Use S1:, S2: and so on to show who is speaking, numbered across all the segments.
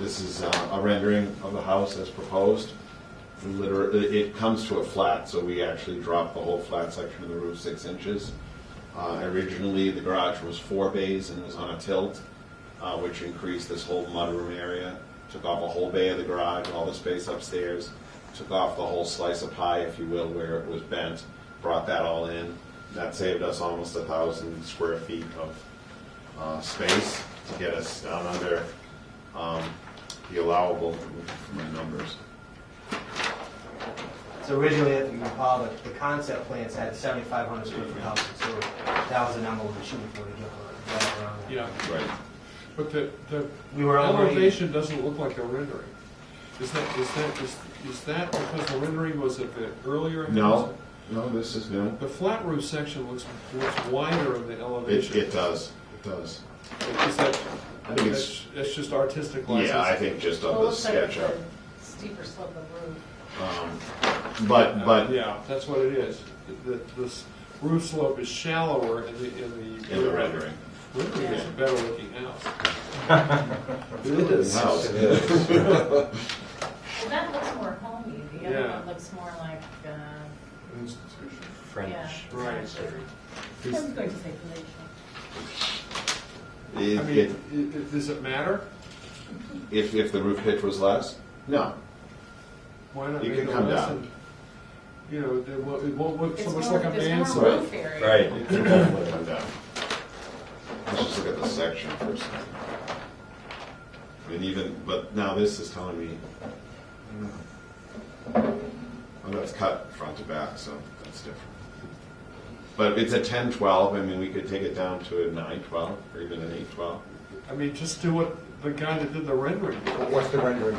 S1: This is uh, a rendering of the house as proposed. Liter- it- it comes to a flat, so we actually dropped the whole flat section of the roof six inches. Uh, Originally, the garage was four bays and it was on a tilt, uh, which increased this whole mudroom area. Took off a whole bay of the garage, all the space upstairs, took off the whole slice of pie, if you will, where it was bent, brought that all in. That saved us almost a thousand square feet of uh, space to get us down under um, the allowable, for my numbers.
S2: So originally, if you recall, the, the concept plans had seventy-five hundred square foot houses, so that was the number we were shooting for to get around- get around. that.
S3: Yeah,
S1: Right.
S3: but the, the
S2: We were already,
S3: elevation doesn't look like a rendering. Is that, is that, is, is that because the rendering was of the earlier? house?
S1: No, no, this is new.
S3: The flat roof section looks, looks wider in the
S1: It,
S3: elevation.
S1: it does, it does.
S3: Is that,
S1: I think it's,
S3: that's, that's just artistic license?
S1: yeah, I think just
S4: Well,
S1: on
S4: it
S1: the
S4: looks like it's
S1: sketch up.
S4: a Steeper slope of roof.
S1: Um, But, but,
S3: Yeah, that's what it is. The, this roof slope is shallower in the, in the.
S1: in the rendering.
S3: Rendering is a better looking house.
S5: It is.
S1: House.
S4: Well, that looks more homey, the other
S3: Yeah.
S4: one looks more like, uh,
S5: Institution.
S4: yeah.
S5: French.
S3: Right.
S4: I was going to say palatial.
S3: I
S1: If,
S3: mean,
S1: if-
S3: i- i- does it matter?
S1: if, if the roof pitch was less, no.
S3: Why not
S1: You
S3: make
S1: can
S3: it
S1: come
S3: less
S1: down.
S3: and, you know, it won't, it won't look so
S4: It's
S3: much
S4: more,
S3: like a
S4: it's
S3: bandsaw.
S4: more roof area. Oh,
S5: Right.
S1: It can definitely come down. Let's just look at the section first. And even, but now this is telling me, I don't know. Well, that's cut front to back, so that's different. But it's a ten twelve, I mean, we could take it down to a nine twelve, or even an eight twelve.
S3: I mean, just do what the guy that did the rendering did.
S6: What's the rendering?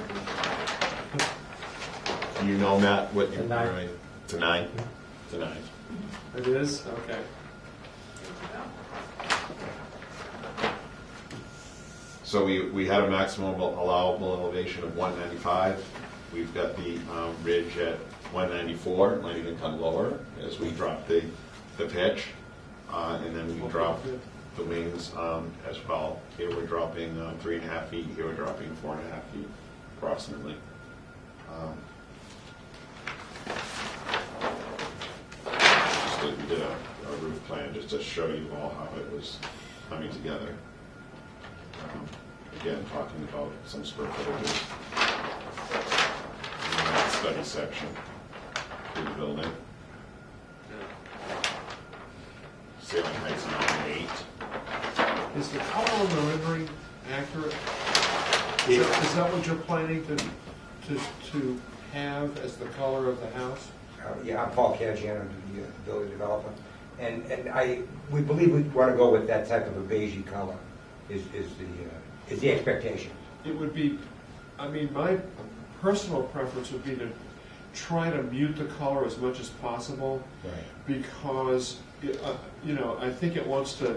S1: You know, Matt, what you
S6: A nine.
S1: It's a nine? It's a nine.
S3: It is, okay.
S1: So we, we had a maximum allowable elevation of one ninety-five. We've got the um, ridge at one ninety-four, it might even come lower as we drop the, the pitch. Uh, and then we drop the wings um, as well. Here we're dropping um, three and a half feet, here we're dropping four and a half feet approximately. Um, Just did, we did a a roof plan just to show you all how it was coming together. Um, Again, talking about some square footage. And that Study section to the building. Ceiling height's nine eight.
S3: Is the color on the rendering accurate? Is that- is that what you're planning to, to, to have as the color of the house?
S6: Uh, Yeah, I'm Paul Caggiano, the uh, building developer, and, and I, we believe we want to go with that type of a beige color is, is the, uh, is the expectation.
S3: It would be, I mean, my personal preference would be to try to mute the color as much as possible.
S6: Right.
S3: because, it, uh, you know, I think it wants to,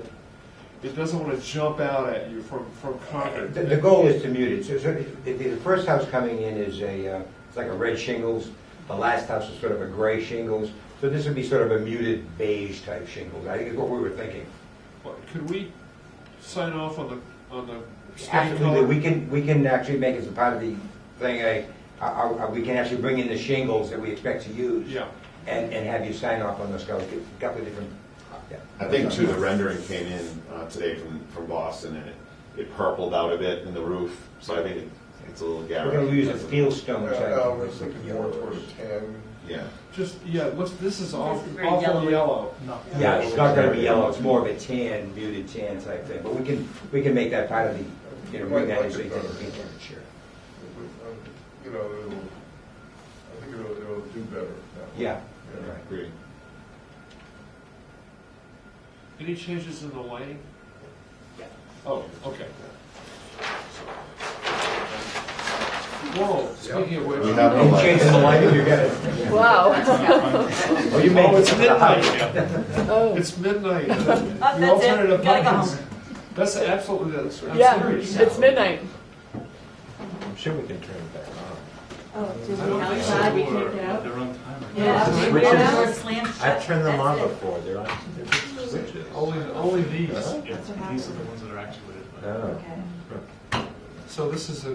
S3: it doesn't want to jump out at you from, from Concord.
S6: The, the goal is to mute it, so, so if- if the first house coming in is a, uh, it's like a red shingles, the last house is sort of a gray shingles, so this would be sort of a muted beige type shingles, I think is what we were thinking.
S3: Could we sign off on the, on the state
S6: Absolutely, we
S3: color?
S6: can, we can actually make it as a part of the thing, I, I, I, we can actually bring in the shingles that we expect to use.
S3: Yeah,
S6: and, and have you sign off on those guys, get a couple of different. yeah.
S1: I think too, the rendering came in uh, today from, from Boston and it, it purpled out a bit in the roof, so I think it- it's a little
S6: We're
S1: garish.
S6: gonna use a field stone type.
S7: Uh, I was thinking more toward a tan.
S1: Yeah.
S3: just, yeah, what's, this is
S4: This is
S3: awful,
S4: very
S3: awful
S4: yellowy.
S3: yellow.
S6: Yeah, it's not gonna be yellow, it's more of a tan, muted tan type thing, but we can, we can make that part of the, you know, bring that in so you can paint it, sure.
S7: Um, You know, it'll, I think it'll, it'll do better that way.
S6: Yeah,
S7: Yeah.
S6: right.
S1: Agree.
S3: Any changes in the lighting? Oh, okay. Whoa, speaking of which.
S1: We have no
S6: And
S1: lights.
S6: changing the lighting, you got it.
S8: Wow.
S6: Oh, you made
S3: Oh, it's
S6: it.
S3: midnight.
S8: Oh.
S3: It's midnight.
S4: that's
S3: The
S4: it.
S3: alternative
S4: Gotta go
S3: buttons. That's absolutely, that's, I'm
S8: Yeah,
S3: serious.
S8: it's midnight.
S5: I'm sure we can turn it back on.
S4: Oh, do
S3: I don't think so.
S4: outside we kicked out?
S5: They're on timer.
S4: Yeah.
S5: Switches.
S4: Yeah, we're slammed shut.
S5: I've turned them on
S4: That's it.
S5: before, they're on, they're just switches.
S3: Only, only these.
S5: Huh? Oh.
S9: Yeah, these are the ones that are actually lit.
S5: No.
S4: Okay.
S3: So this is a